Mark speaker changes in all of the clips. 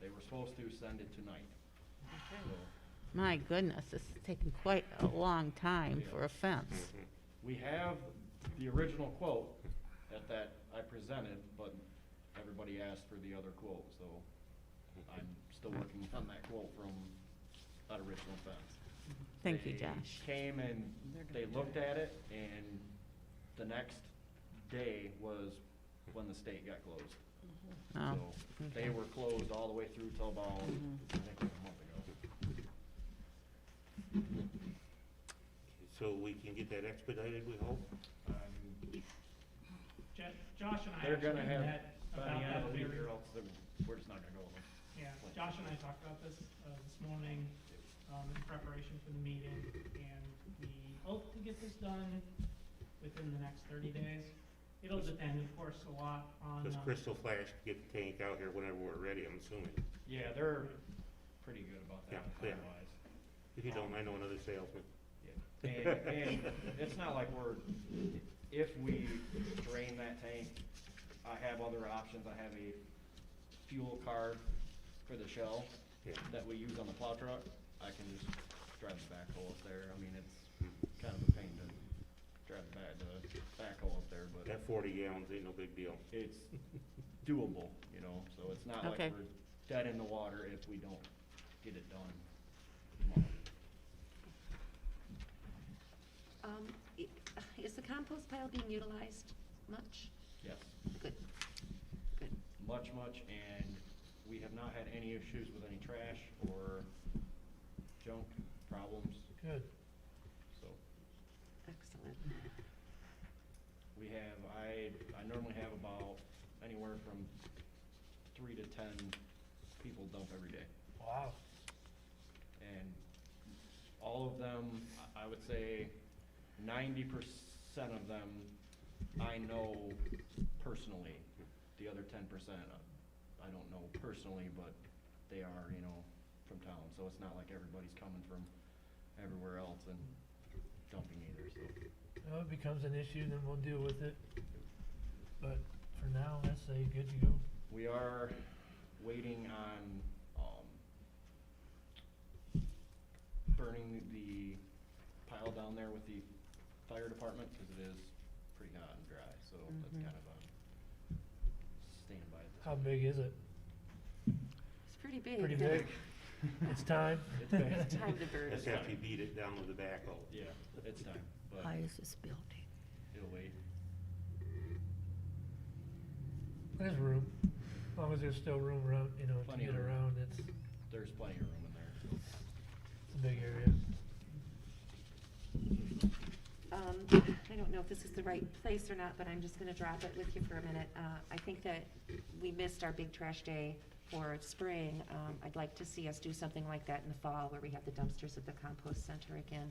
Speaker 1: They were supposed to send it tonight. So
Speaker 2: My goodness, this is taking quite a long time for a fence.
Speaker 3: Mm-hmm,
Speaker 1: We have the original quote that that I presented, but everybody asked for the other quote, so
Speaker 3: mm-hmm.
Speaker 1: I'm still working on that quote from that original fence.
Speaker 2: Thank you,
Speaker 1: They
Speaker 2: Josh.
Speaker 1: Came and they looked at it and the next day was when the state got closed.
Speaker 2: Oh,
Speaker 1: So they
Speaker 2: okay.
Speaker 1: were closed all the way through till about, I think it was a month ago.
Speaker 3: So we can get that expedited, we hope?
Speaker 4: Jo- Josh and I
Speaker 1: They're
Speaker 4: actually
Speaker 1: gonna have,
Speaker 4: met
Speaker 1: by the
Speaker 4: about
Speaker 1: end
Speaker 4: that
Speaker 1: of the week,
Speaker 4: very,
Speaker 1: or else they're- we're just not gonna go with them.
Speaker 4: yeah, Josh and I talked about this, uh, this morning, um, in preparation for the meeting, and we hope to get this done within the next thirty days. It'll depend, of course, a lot on,
Speaker 3: Does
Speaker 4: um,
Speaker 3: Crystal Flash get the tank out here whenever we're ready, I'm assuming?
Speaker 1: Yeah, they're pretty good about that
Speaker 3: Yeah, yeah.
Speaker 1: time-wise.
Speaker 3: If you don't, I know another salesman.
Speaker 1: And, and it's not like we're, if we drain that tank, I have other options. I have a fuel card for the shell
Speaker 3: Yeah.
Speaker 1: that we use on the plow truck. I can just drive the backhoe up there. I mean, it's kind of a pain to drive the back, the backhoe up there, but
Speaker 3: That forty gallons ain't no big deal.
Speaker 1: it's doable, you know, so it's not like
Speaker 2: Okay.
Speaker 1: we're dead in the water if we don't get it done. tomorrow.
Speaker 5: Um, i- Is the compost pile being utilized much?
Speaker 1: Yes.
Speaker 5: Good. Good.
Speaker 1: Much, much, and we have not had any issues with any trash or junk problems,
Speaker 6: Good.
Speaker 1: so
Speaker 5: Excellent.
Speaker 1: we have, I, I normally have about anywhere from three to ten people dump every day.
Speaker 6: Wow.
Speaker 1: And all of them, I I would say ninety percent of them, I know personally. The other ten percent, I don't know personally, but they are, you know, from town, so it's not like everybody's coming from everywhere else and dumping either, so.
Speaker 6: Well, it becomes an issue, then we'll deal with it. But for now, let's say good to go.
Speaker 1: We are waiting on, um, burning the pile down there with the fire department, cause it is pretty hot and dry, so that's
Speaker 2: Mhm.
Speaker 1: kind of a standby. at this
Speaker 6: How
Speaker 1: point.
Speaker 6: big is it?
Speaker 5: It's pretty big.
Speaker 6: Pretty
Speaker 5: huh?
Speaker 6: big. It's time.
Speaker 1: It's big.
Speaker 5: Time to burn.
Speaker 3: That's after you beat it down with the backhoe.
Speaker 1: Yeah, it's time, but
Speaker 7: Why is this building?
Speaker 1: it'll wait.
Speaker 6: There's room. As long as there's still room around, you know, to
Speaker 1: Plenty of
Speaker 6: get
Speaker 1: room.
Speaker 6: around, it's
Speaker 1: There's plenty of room in there, so.
Speaker 6: it's a big area.
Speaker 5: Um, I don't know if this is the right place or not, but I'm just gonna drop it with you for a minute. Uh, I think that we missed our big trash day for spring. Um, I'd like to see us do something like that in the fall, where we have the dumpsters at the compost center again.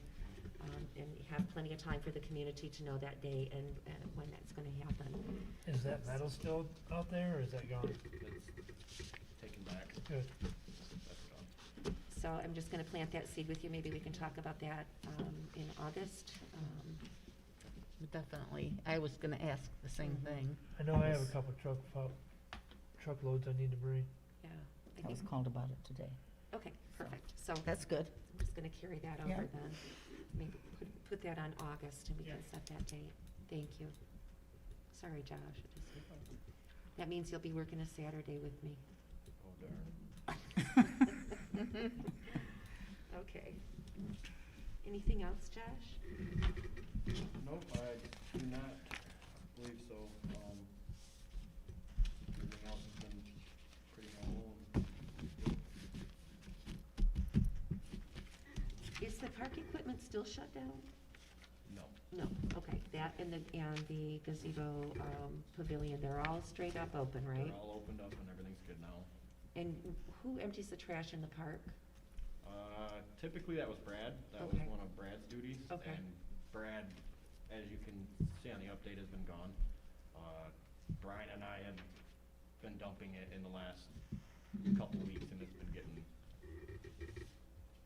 Speaker 5: Um, And we have plenty of time for the community to know that day and uh, when that's gonna happen.
Speaker 6: Is that metal still out there or is that gone?
Speaker 1: It's taken back,
Speaker 6: Good.
Speaker 1: that's done.
Speaker 5: So I'm just gonna plant that seed with you, maybe we can talk about that, um, in August. Um,
Speaker 2: Definitely. I was gonna ask the same thing.
Speaker 6: I know I have a couple truck, fo- truckloads I need to bring.
Speaker 5: Yeah, I
Speaker 7: I was
Speaker 5: think,
Speaker 7: called about it today.
Speaker 5: okay, perfect, so I'm
Speaker 7: That's good.
Speaker 5: just gonna carry that
Speaker 7: Yeah.
Speaker 5: over then. Maybe put, put that on August and we can
Speaker 4: Yeah.
Speaker 5: set that date, thank you. Sorry, Josh, it just- that means you'll be working a Saturday with me.
Speaker 1: Oh darn.
Speaker 5: Okay. Anything else, Josh?
Speaker 1: Nope, I do not believe so. Um, everything else has been pretty normal.
Speaker 5: Is the park equipment still shut down?
Speaker 1: No.
Speaker 5: No, okay, that and the, and the gazebo, um, pavilion, they're all straight up open, right?
Speaker 1: They're all opened up and everything's good now.
Speaker 5: And who empties the trash in the park?
Speaker 1: Uh, typically that was Brad. That was
Speaker 5: Okay.
Speaker 1: one of Brad's duties.
Speaker 5: Okay.
Speaker 1: And Brad, as you can see on the update, has been gone. Uh, Brian and I have been dumping it in the last couple weeks and it's been getting,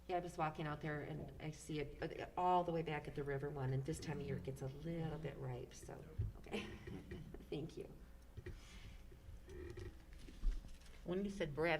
Speaker 5: Yeah, I was walking out there and I see it uh, all the way back at the river one, and this time of year it gets a little bit ripe, so, okay.
Speaker 3: Mm-hmm.
Speaker 5: Thank you.
Speaker 2: When you said Brad